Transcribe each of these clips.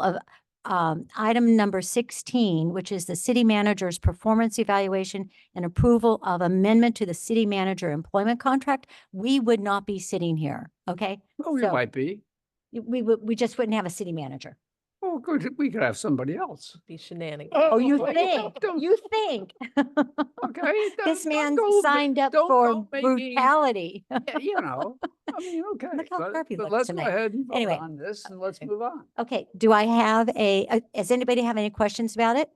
of um, item number sixteen, which is the city manager's performance evaluation and approval of amendment to the city manager employment contract, we would not be sitting here, okay? Oh, So- you might be. We would, we just wouldn't have a city manager. Oh, good. We could have somebody else. be shenanigans. Oh, you well, think, don't- you think? Okay. This don't- don't man's go ma- signed up don't for go making- brutality. yeah, You know, I mean, okay. Look how but- Harvey but looks let's go tonight. ahead and vote Anyway. on this and let's Okay. move on. Okay, do I have a, uh, does anybody have any questions about it?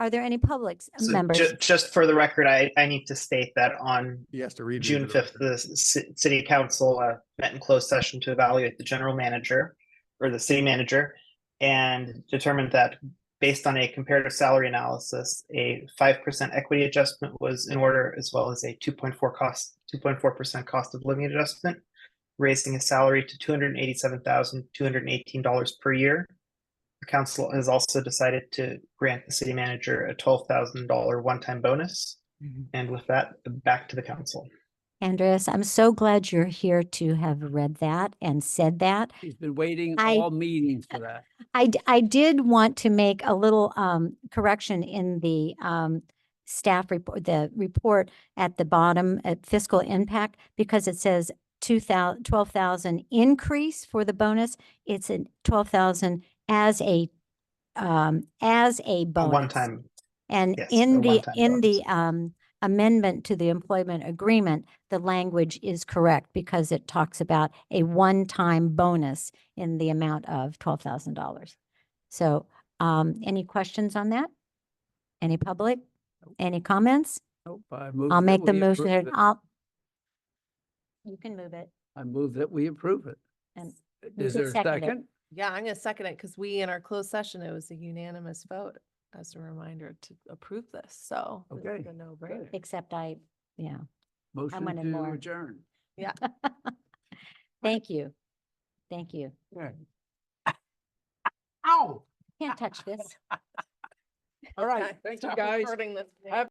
Are there any public s- So members? ju- Just for the record, I, I need to state that on He has to read. it June into the fifth, the ci- city council uh, met in closed session to evaluate the general manager or the city manager and determined that based on a comparative salary analysis, a five percent equity adjustment was in order as well as a two point four cost, two point four percent cost of living adjustment, raising his salary to two hundred and eighty-seven thousand, two hundred and eighteen dollars per year. The council has also decided to grant the city manager a twelve thousand dollar one-time bonus. And with that, back to the council. Andreas, I'm so glad you're here to have read that and said that. He's been waiting I- all meetings for that. I, d- I did want to make a little um, correction in the um, staff report, the report at the bottom at fiscal impact, because it says 2,000, 12,000 increase for the bonus. It's a 12,000 as a, um, as a A bonus. one-time And Yes, in a the, one-time in bonus. the um, amendment to the employment agreement, the language is correct because it talks about a one-time bonus in the amount of twelve thousand dollars. So um, any questions on that? Any public? Any comments? Nope, I move I'll that make the we motion. approve and it. I'll. You can move it. I move that we approve it. And you Is can there a second it. second? Yeah, I'm gonna second it because we, in our closed session, it was a unanimous vote as a reminder to approve this, so. this is Okay, a No-brainer. Except I, yeah. Motion wanted to more. adjourn. Thank you. Thank you. Yeah. Ow. Can't touch this. All right, thank you, guys. Recording this. Have